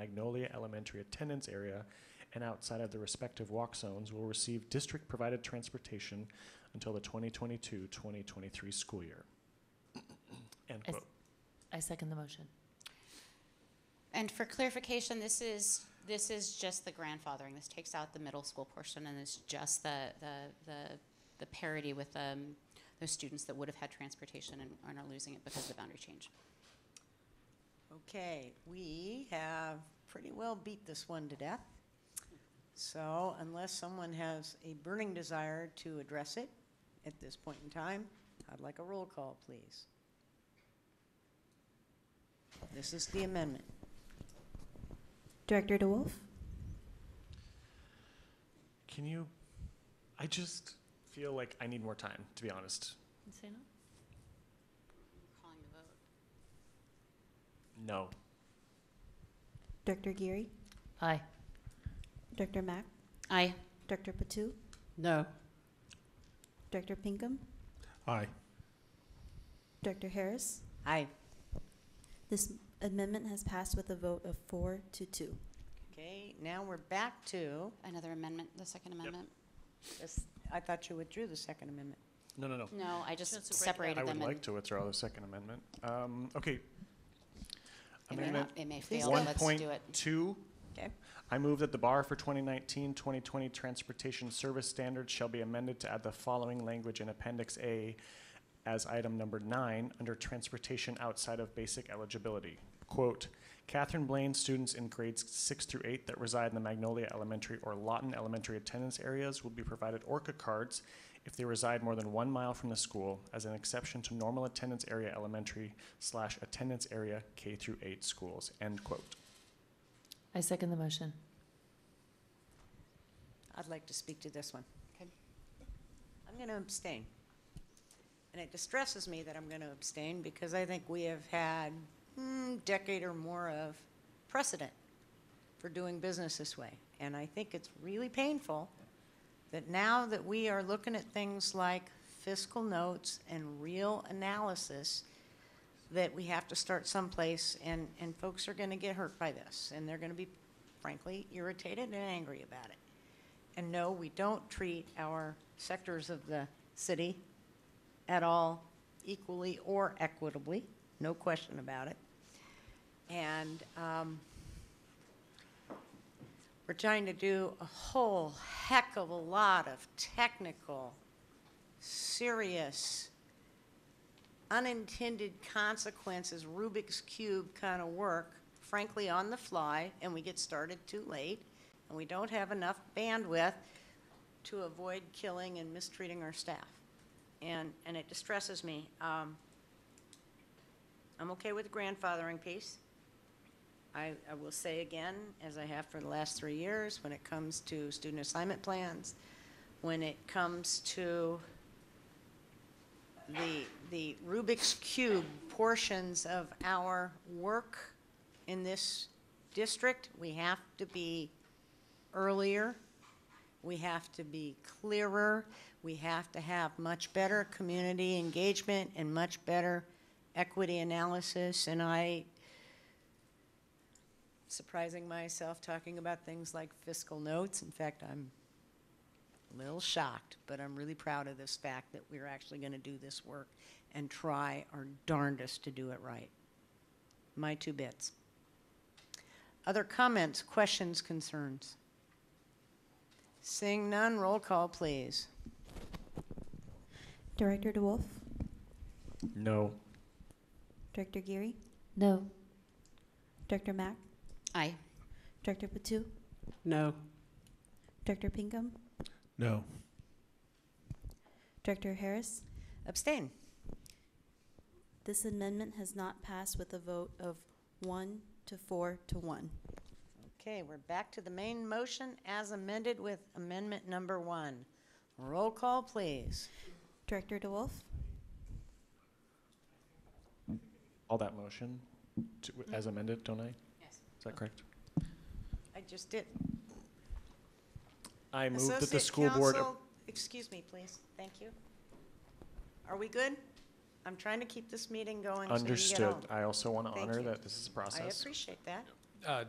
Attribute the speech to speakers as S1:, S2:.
S1: Magnolia Elementary attendance area and outside of the respective walk zones will receive district-provided transportation until the 2022-2023 school year. End
S2: As-
S1: quote.
S2: I second the motion.
S3: And for clarification, this is, this is just the grandfathering. This takes out the middle school portion and it's just the, the, the, the parity with, um, those students that would have had transportation and and are losing it because of the boundary change.
S4: Okay, we have pretty well beat this one to death. So unless someone has a burning desire to address it at this point in time, I'd like a roll call, please. This is the amendment.
S5: Director DeWolf?
S1: Can you, I just feel like I need more time, to be honest.
S2: Say no?
S3: Calling the vote.
S1: No.
S5: Director Geary?
S2: Aye.
S5: Director Mack?
S3: Aye.
S5: Director Patu?
S4: No.
S5: Director Pinkham?
S1: Aye.
S5: Director Harris?
S4: Aye.
S5: This amendment has passed with a vote of four to two.
S4: Okay, now we're back to,
S3: Another amendment, the second amendment?
S4: this- I thought you withdrew the Second Amendment.
S1: No, no, no.
S3: No, I
S2: Just to
S3: just
S2: break it up.
S3: separated
S1: I
S3: them.
S1: would
S3: and
S1: like to withdraw the Second Amendment. Um, Okay.
S3: it may
S1: Amendment
S3: not- It may
S4: Please
S3: fail,
S4: go
S3: but
S4: ahead.
S3: let's do it.
S1: 1.2.
S4: Okay.
S1: I move that the bar for 2019-2020 transportation service standards shall be amended to add the following language in Appendix A as item number nine, under transportation outside of basic eligibility. Quote, Catherine Blaine students in grades six through eight that reside in the Magnolia Elementary or Lawton Elementary attendance areas will be provided Orca cards if they reside more than one mile from the school as an exception to normal attendance area elementary slash attendance area K through eight schools, end quote.
S2: I second the motion.
S4: I'd like to speak to this one.
S3: Okay.
S4: I'm going to abstain. And it distresses me that I'm going to abstain because I think we have had hmm, decade or more of precedent for doing business this way. And I think it's really painful that now that we are looking at things like fiscal notes and real analysis, that we have to start someplace and, and folks are going to get hurt by this. And they're going to be frankly irritated and angry about it. And no, we don't treat our sectors of the city at all equally or equitably, no question about it. And um, we're trying to do a whole heck of a lot of technical, serious, unintended consequences, Rubik's Cube kind of work, frankly, on the fly, and we get started too late, and we don't have enough bandwidth to avoid killing and mistreating our staff. And, and it distresses me. Um, I'm okay with the grandfathering piece. I, I will say again, as I have for the last three years, when it comes to student assignment plans, when it comes to the, the Rubik's Cube portions of our work in this district, we have to be earlier, we have to be clearer, we have to have much better community engagement and much better equity analysis, and I, surprising myself talking about things like fiscal notes, in fact, I'm a little shocked, but I'm really proud of this fact that we're actually going to do this work and try our darndest to do it right. My two bits. Other comments, questions, concerns? Seeing none, roll call, please.
S5: Director DeWolf?
S1: No.
S5: Director Geary?
S2: No.
S5: Director Mack?
S3: Aye.
S5: Director Patu?
S4: No.
S5: Director Pinkham?
S1: No.
S5: Director Harris?
S4: Abstain.
S5: This amendment has not passed with a vote of one to four to one.
S4: Okay, we're back to the main motion as amended with amendment number one. Roll call, please.
S5: Director DeWolf?
S1: All that motion to, as amended, don't I? Is
S3: Yes.
S1: that correct?
S4: I just did.
S1: I move that the
S4: Associate
S1: school board,
S4: counsel, Excuse me, please. Thank you. Are we good? I'm trying to keep this meeting going so you can get
S1: understood.
S4: home.
S1: I also want to
S4: Thank
S1: honor
S4: you.
S1: that this is a process.
S4: I appreciate that.
S6: Uh,